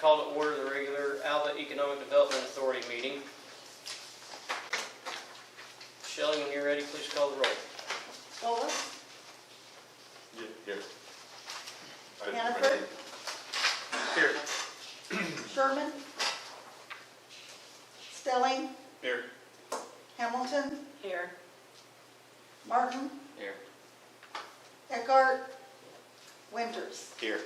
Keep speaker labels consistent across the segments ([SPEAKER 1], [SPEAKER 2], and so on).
[SPEAKER 1] call to order the regular Alva Economic Development Authority meeting. Shelley, when you're ready, please call the roll.
[SPEAKER 2] Golds,
[SPEAKER 3] Here.
[SPEAKER 2] Hannaford,
[SPEAKER 3] Here.
[SPEAKER 2] Sherman, Stelling,
[SPEAKER 3] Here.
[SPEAKER 2] Hamilton,
[SPEAKER 4] Here.
[SPEAKER 2] Martin,
[SPEAKER 1] Here.
[SPEAKER 2] Eckhart, Winters.
[SPEAKER 3] Here.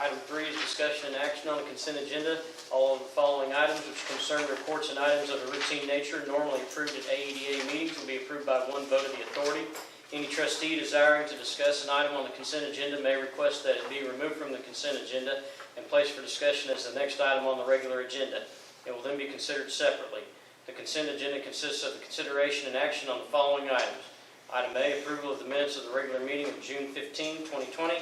[SPEAKER 1] Item three is discussion and action on the consent agenda. All of the following items which concern reports and items of a routine nature normally approved at AEDA meetings will be approved by one vote of the authority. Any trustee desiring to discuss an item on the consent agenda may request that it be removed from the consent agenda and placed for discussion as the next item on the regular agenda. It will then be considered separately. The consent agenda consists of the consideration and action on the following items. Item A, approval of the minutes of the regular meeting of June 15, 2020.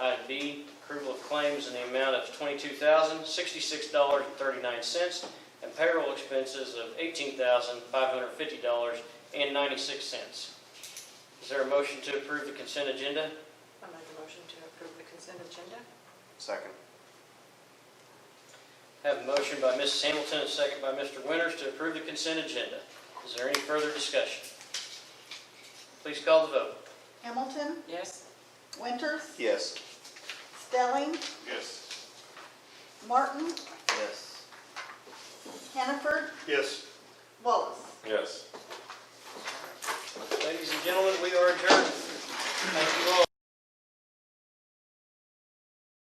[SPEAKER 1] Item B, approval of claims in the amount of twenty-two thousand, sixty-six dollars and thirty-nine cents, and payroll expenses of eighteen thousand, five hundred fifty dollars and ninety-six cents. Is there a motion to approve the consent agenda?
[SPEAKER 4] I make a motion to approve the consent agenda.
[SPEAKER 3] Second.
[SPEAKER 1] Have a motion by Mrs. Hamilton, and a second by Mr. Winters to approve the consent agenda. Is there any further discussion? Please call the vote.
[SPEAKER 2] Hamilton,
[SPEAKER 4] Yes.
[SPEAKER 2] Winters,
[SPEAKER 3] Yes.
[SPEAKER 2] Stelling,
[SPEAKER 3] Yes.
[SPEAKER 2] Martin,
[SPEAKER 3] Yes.
[SPEAKER 2] Hannaford,
[SPEAKER 3] Yes.
[SPEAKER 2] Wallace.
[SPEAKER 3] Yes.
[SPEAKER 1] Ladies and gentlemen, we are adjourned. Thank you all.